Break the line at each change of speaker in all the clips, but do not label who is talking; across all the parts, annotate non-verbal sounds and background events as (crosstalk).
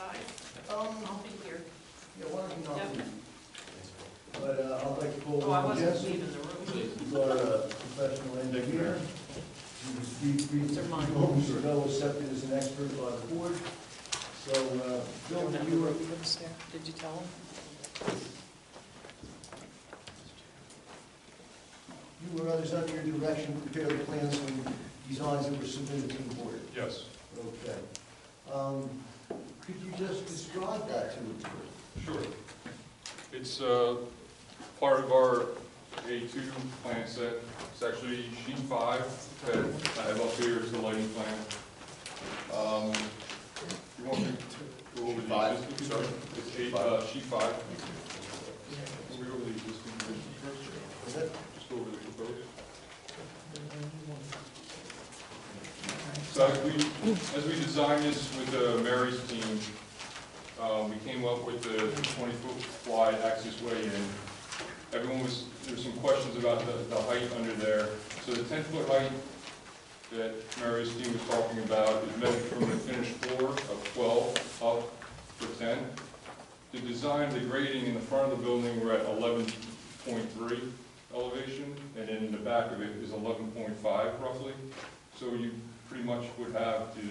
uh,
Oh,
Oh,
whom Mr. Bell was accepted as an expert by the board. So, uh, Bill,
Remember
you were,
what you was there? Did you tell him?
you were others under your direction, to prepare the plans and designs that were submitted to the board.
Yes,
Okay. Um, Could you just describe that to the board?
sure. It's uh, part of our A2 plan set. It's actually sheet five that I have up here is the lighting plan. Um, You want me to go over
Sheet
the
five,
existing?
sorry.
It's eight, uh, sheet five. Can we go over the existing conditions first?
Is that-
Just go over the proposed.
Yeah.
So as we, as we designed this with uh, Mary's team, uh, we came up with the 20-foot wide access way in. Everyone was, there were some questions about the, the height under there. So the 10-foot height that Mary's team was talking about is measured from the finished floor of 12 up to 10. The design, the grading in the front of the building, we're at 11.3 elevation, and then in the back of it is 11.5 roughly. So you pretty much would have the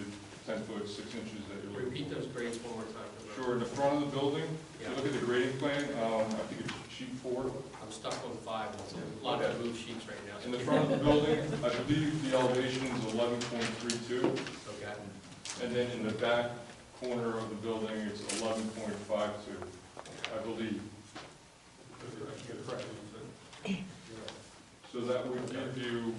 ten foot, six inches that you're looking
Repeat
for.
those grades one more time. for the-
Sure, in the front of the building, if
Yeah,
you look at the grading plan, um, I think it's sheet four.
I'm stuck on five, it's a lot of move sheets right now.
In the front of the building, I believe the elevation is eleven point three two,
(laughs) Okay.
and then in the back corner of the building, it's eleven point five two, I believe. So that would give you,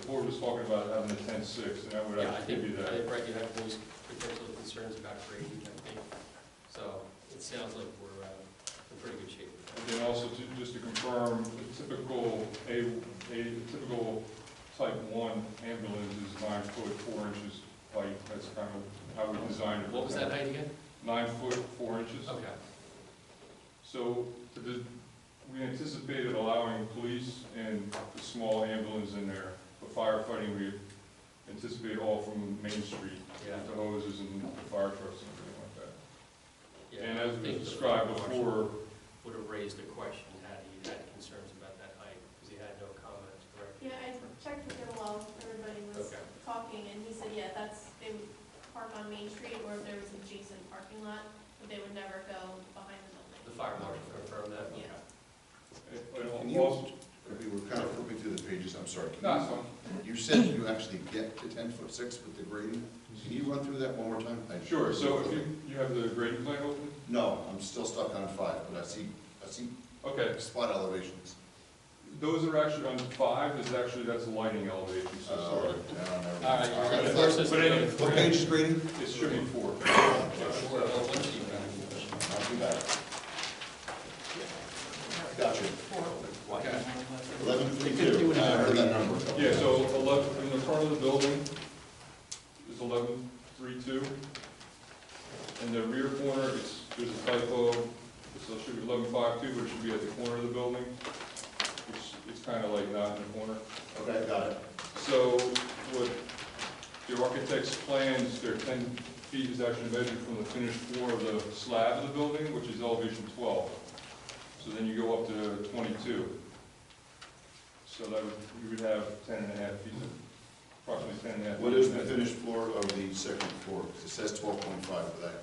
the board was talking about having the ten-six, and that would
Yeah, I
actually
think,
give you
I
that.
think, right, you have those potential concerns about grading, I think. So it sounds like we're uh, in pretty good shape.
And then also, to- just to confirm, the typical, a, a typical type one ambulance is nine foot, four inches height, that's kind of how we designed it.
What was that Oh. height again?
Nine foot, four inches.
Okay.
So, the- we anticipated allowing police and the small ambulance in there, but firefighting, we anticipate all from Main Street,
Yeah.
with the hoses and the fire trucks and everything like that.
Yeah,
And
I
as we
think the
described
marshal
before,
Would have raised a question had he had concerns about that height, because he had no comments, correct?
Yeah, I checked with him while everybody was
Okay.
talking, and he said, yeah, that's, they would park on Main Street, or if there was adjacent parking lot, but they would never go behind the building.
The fire marshal confirmed that?
Yeah.
Can
it- it
you-
also,
We were kind of flipping through the pages, I'm sorry. Can
not some,
you- You said you actually get to ten foot six with the grading. Can you run through that one more time? I-
Sure, so if you, you have the grading plan open?
No, I'm still stuck on five, but I see, I see
Okay,
spot elevations.
those are actually on five, is actually, that's lighting elevation, so
Uh,
sorry.
no, never mind.
All right, you're
All right.
gonna force us to
But
go to
anyway,
What page is grading?
It should be four.
Sure, well, one sheet, man.
Not too bad. Gotcha.
Okay.
Eleven three two, I heard that number. a couple
Yeah, so
times.
eleven, in the front of the building is eleven three two. In the rear corner, it's, there's a typo, so it should be eleven five two, but it should be at the corner of the building. It's, it's kind of like not in the corner.
Okay, got it.
So what the architect's plans, their ten feet is actually measured from the finished floor of the slab of the building, which is elevation twelve. So then you go up to twenty-two. So that would, you would have ten and a half feet, approximately ten and a half.
What is the finished floor of the second floor? 'Cause It says twelve point five, but that,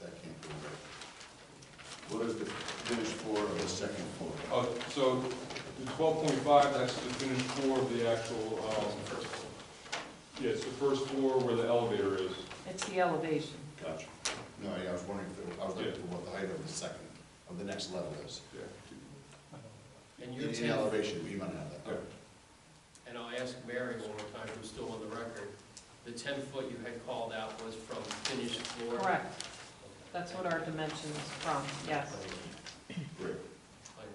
that can't be right. What is the finished floor of the second floor?
Oh, so the twelve point five, that's the finished floor of the actual, um,
First one.
yeah, it's the first floor where the elevator is.
It's the elevation.
Gotcha. No, yeah, I was wondering if, there- I was looking for what the height of the second, of the next level is.
And you're
In in
ten,
elevation, we might have that.
and I'll ask Mary one more time, who's still on the record, the ten foot you had called out was from finished floor?
Correct. That's what our dimension is from, yes.
Great.
Fine.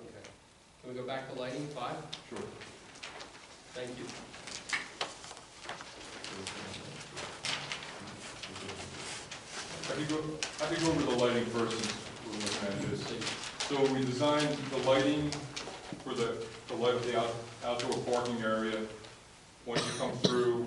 Okay. Can we go back to lighting five?
Sure.
Thank you.
I could go, I could go over the lighting first, since we're looking at this. So we designed the lighting for the, the light of the out- outdoor parking area. Once you come through,